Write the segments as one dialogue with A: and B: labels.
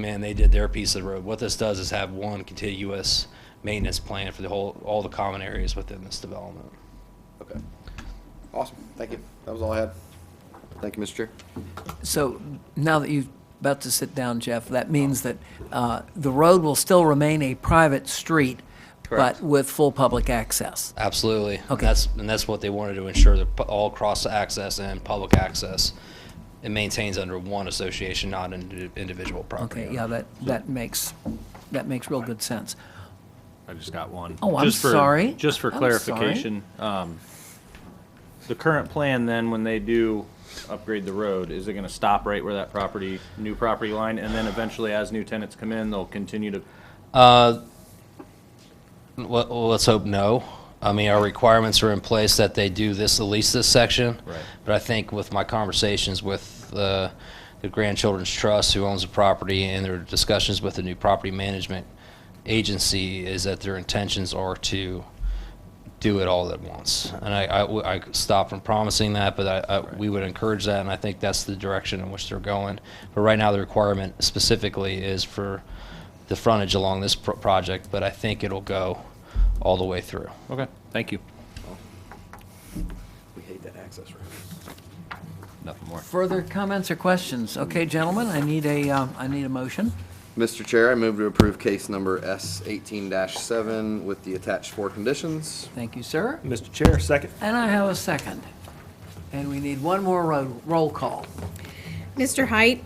A: man, they did their piece of the road. What this does is have one contiguous maintenance plan for the whole, all the common areas within this development.
B: Okay. Awesome. Thank you. That was all I had. Thank you, Mr. Chair.
C: So now that you're about to sit down, Jeff, that means that uh, the road will still remain a private street,
A: Correct.
C: but with full public access.
A: Absolutely. And
C: Okay.
A: That's, and that's what they wanted to ensure, that pu- all cross-access and public access, it maintains under one association, not an indi- individual property.
C: Okay, yeah,
A: owner.
C: that, that makes, that makes real good sense.
D: I just got one.
C: Oh, I'm
D: Just for-
C: sorry.
D: Just for
C: I'm
D: clarification, um, the current plan then, when they do upgrade the road, is it gonna stop right where that property, new property line, and then eventually as new tenants come in, they'll continue to,
A: Let- Let's hope no. I mean, our requirements are in place that they do this, at least this section.
D: Right.
A: But I think with my conversations with uh, the Grandchildren's Trust, who owns the property, and their discussions with the new property management agency, is that their intentions are to do it all at once. And I, I w- I stop from promising that, but I, I, we would encourage that, and I think that's the direction in which they're going. But right now, the requirement specifically is for the frontage along this pro- project, but I think it'll go all the way through.
D: okay, thank you.
B: We hate that access road.
D: Nothing more.
C: Further comments or questions? Okay, gentlemen, I need a, um, I need a motion.
B: Mr. Chair, I move to approve case number S eighteen seven with the attached four conditions.
C: Thank you, sir.
E: Mr. Chair, second.
C: And I have a second. And we need one more roll, roll call.
F: Mr. Height,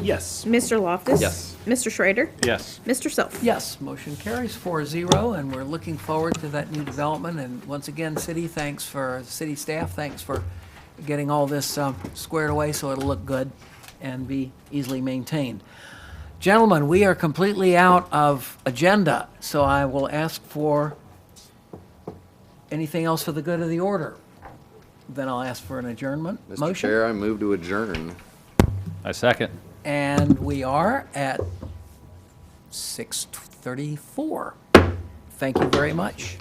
E: Yes.
F: Mr. Loftus.
B: Yes.
F: Mr. Schrader,
D: Yes,
F: Mr. Self.
C: Yes, motion carries 4-0, and we're looking forward to that new development. And once again, city, thanks for, city staff, thanks for getting all this um, squared away so it'll look good and be easily maintained. Gentlemen, we are completely out of agenda, so I will ask for anything else for the good of the order. Then I'll ask for an adjournment
B: Mr.
C: motion.
B: Chair, I move to adjourn.
D: I second.
C: And we are at 6:34. Thank you very much.